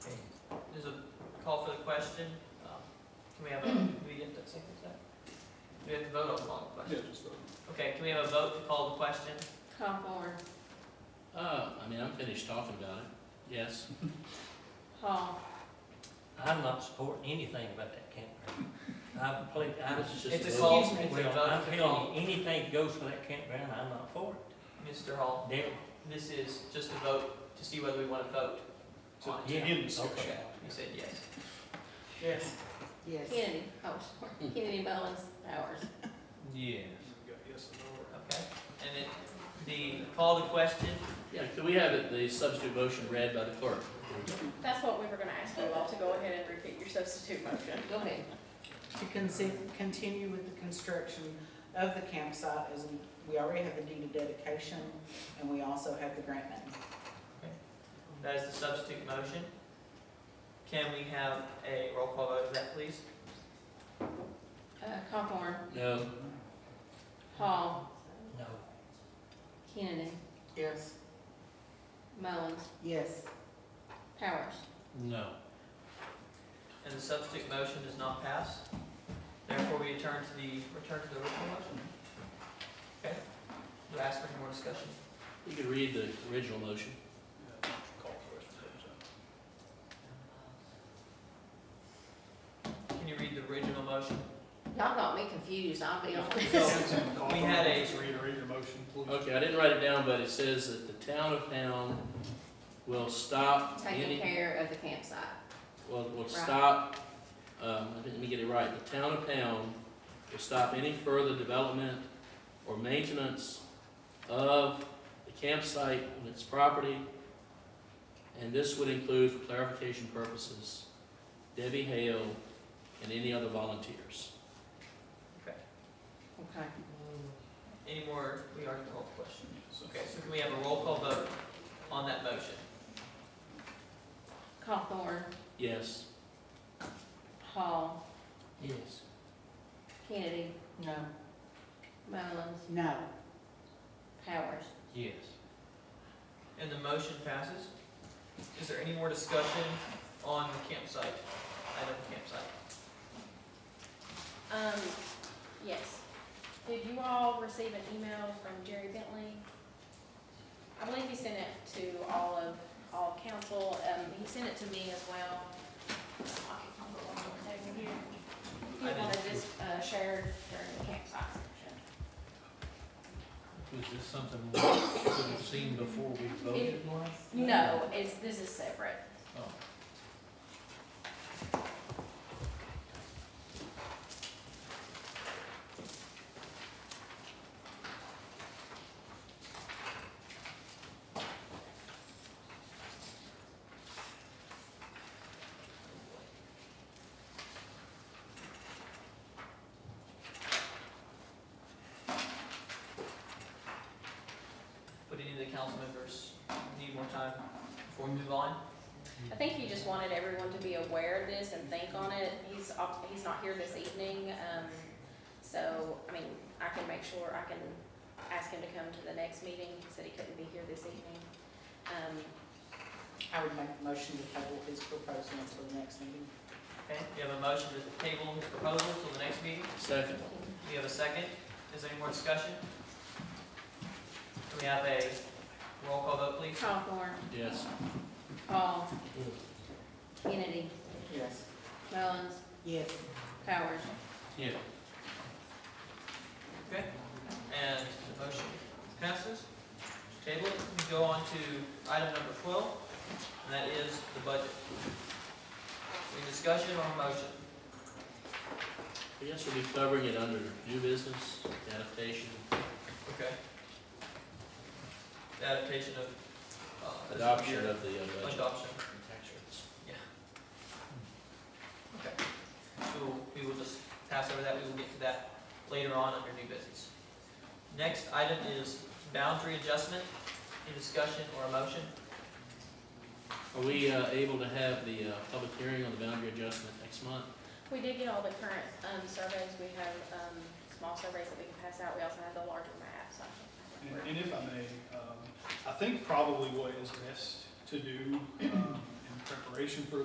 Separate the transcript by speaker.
Speaker 1: call for the question. Um, Can we have a, do we get to say this out? Do we have to vote on calling the
Speaker 2: Yeah,
Speaker 1: question?
Speaker 2: just vote.
Speaker 1: Okay, can we have a vote to call the question?
Speaker 3: Hawthorne,
Speaker 4: Uh, I mean, I'm finished talking about it, yes.
Speaker 3: Hall,
Speaker 5: I'm not supporting anything about that campground. I completely, I was just.
Speaker 1: It's a
Speaker 3: call,
Speaker 5: Excuse me,
Speaker 1: it's a
Speaker 5: well,
Speaker 1: vote,
Speaker 5: I'm
Speaker 1: it's a
Speaker 5: telling
Speaker 1: call.
Speaker 5: you, anything that goes for that campground, I'm not for it.
Speaker 1: Mr. Hall,
Speaker 5: There,
Speaker 1: this is just a vote to see whether we want to vote.
Speaker 2: To
Speaker 1: on it.
Speaker 5: Yeah,
Speaker 2: to end discussion.
Speaker 5: okay.
Speaker 1: You said yes. Yes. Yes.
Speaker 3: Kennedy,
Speaker 6: oh,
Speaker 3: Hawthorne, Kennedy, Mullins, Powers.
Speaker 5: yeah.
Speaker 2: We got yes and no.
Speaker 1: Okay, and it, the call to question,
Speaker 4: Yeah, could we have it- the substitute motion read by the clerk?
Speaker 6: That's what we were gonna ask you all to go ahead and repeat your substitute motion.
Speaker 3: Go ahead.
Speaker 7: to consi- continue with the construction of the campsite as we- we already have the deed of dedication and we also have the grant name.
Speaker 1: that is the substitute motion. Can we have a roll call vote of that, please?
Speaker 3: Uh, Hawthorne,
Speaker 4: No,
Speaker 3: Hall,
Speaker 5: No,
Speaker 3: Kennedy,
Speaker 7: Yes.
Speaker 3: Mullins,
Speaker 7: Yes.
Speaker 3: Powers.
Speaker 4: no.
Speaker 1: And the substitute motion does not pass. Therefore, we return to the, return to the original motion. Okay? Do I ask for any more discussion?
Speaker 4: You could read the original motion.
Speaker 2: Yeah, Call for it.
Speaker 1: Can you read the original motion?
Speaker 3: Y'all got me confused, I'll be honest.
Speaker 1: So,
Speaker 2: Call
Speaker 1: we
Speaker 2: for
Speaker 1: had
Speaker 2: it.
Speaker 1: a-
Speaker 2: Just Read, read your motion, please.
Speaker 4: Okay, I didn't write it down, but it says that the town of Pound will stop
Speaker 3: Taking
Speaker 4: any,
Speaker 3: care of the campsite.
Speaker 4: will, will
Speaker 3: Right.
Speaker 4: stop, um, let me get it right, the town of Pound will stop any further development or maintenance of the campsite on its property. And this would include, for clarification purposes, Debbie Hale and any other volunteers.
Speaker 3: Okay.
Speaker 1: Any more, we already called the question.
Speaker 2: So-
Speaker 1: Okay, so can we have a roll call vote on that motion?
Speaker 3: Hawthorne,
Speaker 4: Yes,
Speaker 3: Hall,
Speaker 5: yes.
Speaker 3: Kennedy,
Speaker 7: No.
Speaker 3: Mullins,
Speaker 7: No.
Speaker 3: Powers.
Speaker 5: Yes.
Speaker 1: And the motion passes. Is there any more discussion on the campsite, item campsite?
Speaker 6: Um, yes. Did you all receive an email from Jerry Bentley? I believe he sent it to all of, all council, um, he sent it to me as well. He
Speaker 1: I didn't-
Speaker 6: wanted this, uh, shared during the campsite session.
Speaker 5: Was this something we could have seen before we
Speaker 6: voted No, it's, this is separate.
Speaker 5: Oh.
Speaker 1: Would any of the council members need more time before we move on?
Speaker 6: I think he just wanted everyone to be aware of this and think on it. He's, off- he's not here this evening, um, so, I mean, I can make sure, I can ask him to come to the next meeting. He said he couldn't be here this evening. Um,
Speaker 7: I would make a motion to table his proposal until the next meeting.
Speaker 1: Okay, we have a motion to table his proposal till the next meeting.
Speaker 4: second.
Speaker 1: We have a second. Is there any more discussion? Can we have a roll call vote, please?
Speaker 3: Hawthorne,
Speaker 4: Yes.
Speaker 3: Hall, Kennedy,
Speaker 7: Yes.
Speaker 3: Mullins,
Speaker 7: Yes.
Speaker 3: Powers.
Speaker 4: Yeah.
Speaker 1: Okay, and the motion passes. Table, it. we go on to item number twelve, and that is the budget. Any discussion or motion?
Speaker 4: I guess we'll be covering it under new business, adaptation,
Speaker 1: Okay. The Adaptation of. uh,
Speaker 4: adoption of the uh, budget.
Speaker 1: Adoption.
Speaker 4: and tax rates.
Speaker 1: We will, we will just pass over that, we will get to that later on under new business. Next item is boundary adjustment, any discussion or a motion?
Speaker 4: Are we uh, able to have the uh, public hearing on the boundary adjustment next month?
Speaker 6: We did get all the current, um, surveys. We have, um, small surveys that we can pass out. We also have the larger maps. I think.
Speaker 2: And and if I may, um, I think probably what is best to do um, in preparation for